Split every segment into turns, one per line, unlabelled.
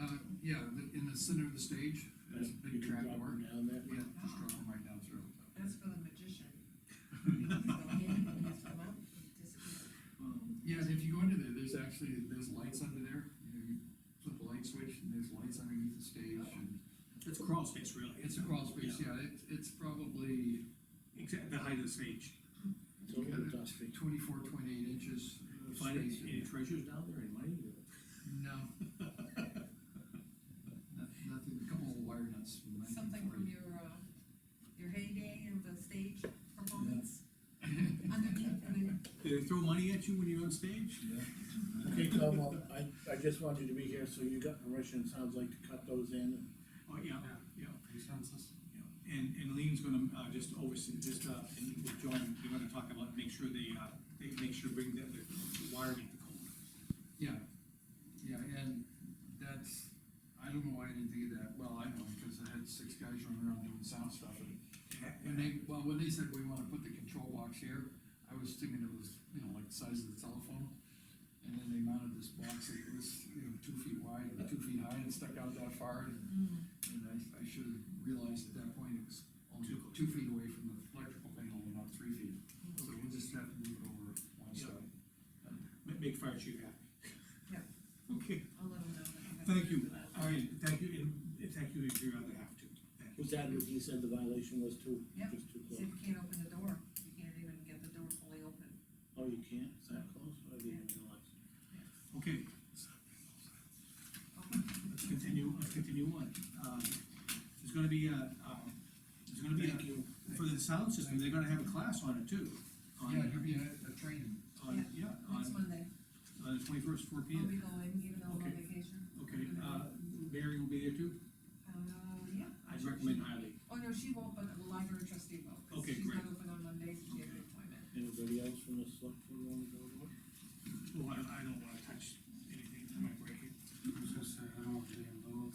Uh, yeah, the- in the center of the stage, there's a
You
big
can
trap
drop
door.
them down there.
Yeah,
Oh.
just drop them right down through.
That's for the magician. He has to go in, he has to come out, he disappears.
Um, Yeah, and if you go into there, there's actually, there's lights under there, you know, you flip the light switch, and there's lights underneath the stage, and
It's a crawl space, really.
it's a crawl space, yeah, it, it's probably
Exactly, the height of the stage.
It's a little dusty.
twenty-four, twenty-eight inches. of
Find any,
space in
any
there.
treasures down there, any money?
No. Noth- Nothing, a couple of wire nuts. from
Something from
1940.
your, uh, your heyday in the stage performance. Underneath, and then,
Do they throw money at you when you're on stage?
Okay, Tom, well, I, I just wanted you to be here, so you got permission, sounds like, to cut those in.
Oh, yeah, yeah. yeah. And, and Lean's gonna, uh, just oversee, just, uh, and with John, you're gonna talk about, make sure they, uh, they make sure bring the, the wiring to code.
Yeah, yeah, and that's, I don't know why I didn't think of that, well, I know, because I had six guys running around doing sound stuff, and when they, well, when they said we wanna put the control box here, I was thinking it was, you know, like the size of the telephone. And then they mounted this box, that was, you know, two feet wide, and two feet high, and stuck out that far, and
mm,
And I, I should have realized at that point it was only
Too close.
two feet away from the electrical panel and not three feet. So we'll just have to move it over one
Yeah.
side.
Ma- Make fire chief happy. Okay,
I'll let him know. that I'm gonna
thank you,
do that.
all right, thank you, and- and thank you if you rather have to, thank you.
Was that what you said the violation was too?
Yep.
Just too
See
close?
if you can't open the door, you can't even get the door fully open.
Oh, you can't, is that close? I didn't realize.
Okay, let's continue, let's continue on. Um, There's gonna be a, um, there's gonna be
Thank
a,
you.
for the sound system, they're gonna have a class on it too. On,
Yeah, there'll be a, a training.
on, yeah,
Next
on,
Monday,
on the twenty-first, four P
I'll
M.
be going, even though I'm on
Okay.
vacation.
Okay, uh, Mary will be there too?
Uh, yeah.
I'd recommend highly.
Oh, no, she won't, but the library trustee will. 'cause
Okay,
She's not
great.
open on Mondays, she has an
Okay.
appointment.
Anybody else from the select board wanna go to it?
Oh, I, I don't wanna touch anything, I might break it.
I was gonna say, I don't want to be involved.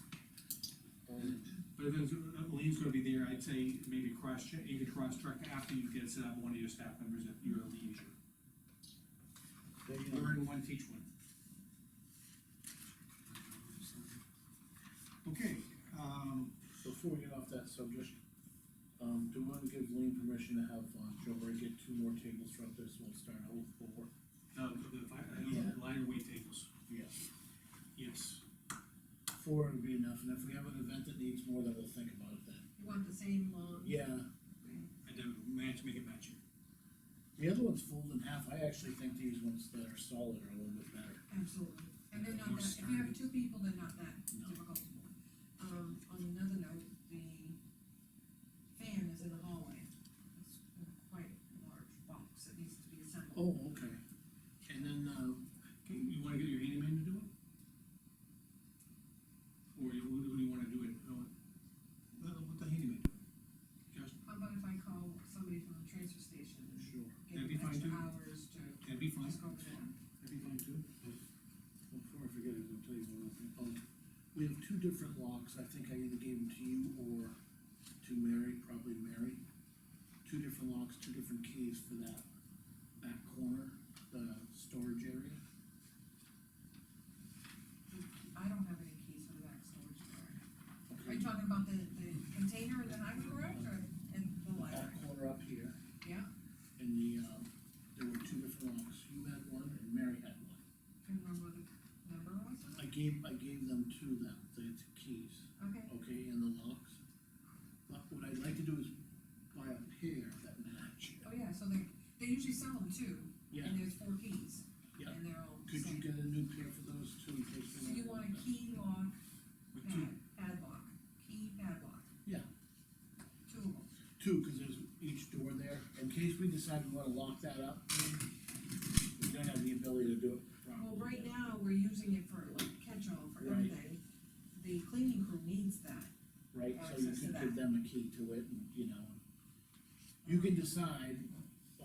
Um,
But if it's, uh, Lean's gonna be there, I'd say maybe cross check, you could cross check after you get set up one of your staff members at your leisure.
they, um,
Learn one, teach one. Okay, um,
Before we get off that subject, um, do we wanna give Lean permission to have, uh, Joe Ray get two more tables from this, we'll start out with four?
uh, the, the, fi-
Yeah.
uh, lighter weight tables,
Yes.
yes.
Four would be enough, and if we have an event that needs more, then we'll think about it then.
You want the same, uh,
Yeah,
And then match, make it matching.
the other one's folded in half, I actually think these ones that are solid are a little bit better.
Absolutely, and they're not
More
that, if you
um,
have two people, they're not that
No.
difficult. Um, on another note, the fan is in the hallway, it's quite a large box that needs to be assembled.
Oh, okay. And then, uh,
Okay, you wanna get your handyman to do it? Or you, what do you wanna do it, uh, uh, what the handyman do? Justin,
How about if I call somebody from the transfer station and
sure,
give
That'd be
them
fine,
extra
too.
hours to
that'd be fine,
just go over there?
that'd be fine too.
before I forget it, I'll tell you one other thing. Um, we have two different locks, I think I either gave them to you or to Mary, probably to Mary. Two different locks, two different keys for that back corner, the storage area.
I don't have any keys for the back storage door. Are you talking about the, the container in the high garage or in the
Back
library?
corner up here.
Yeah,
And the, um, there were two different locks, you had one and Mary had one.
can you remember what the number was?
I gave, I gave them to them, the the keys,
Okay.
okay, and the locks. But what I'd like to do is buy a pair that match.
Oh, yeah, so they, they usually sell them two,
Yeah,
and there's four keys.
Yeah.
And they're all the
could you
same.
get a new pair for those two? in case we
So you want a key lock,
With two,
pad, padlock, key padlock,
Yeah,
two of them.
two, cause there's each door there, in case we decide we wanna lock that up. We don't have the ability to do it properly.
Well, right now, we're using it for like catch-all for
Right.
everything. The cleaning crew needs that.
Right, so you
Access to
could
that.
give them a key to it and, you know. You can decide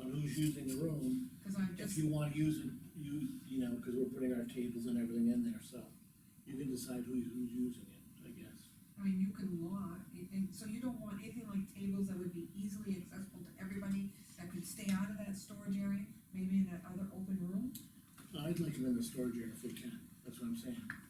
on who's using the room,
Cause I
if
just,
you wanna use it, you, you know, cause we're putting our tables and everything in there, so you can decide who's, who's using it, I guess.
I mean, you can lock, and, and so you don't want anything like tables that would be easily accessible to everybody, that could stay out of that storage area, maybe in that other open room.
I'd like them in the storage area if we can, that's what I'm saying.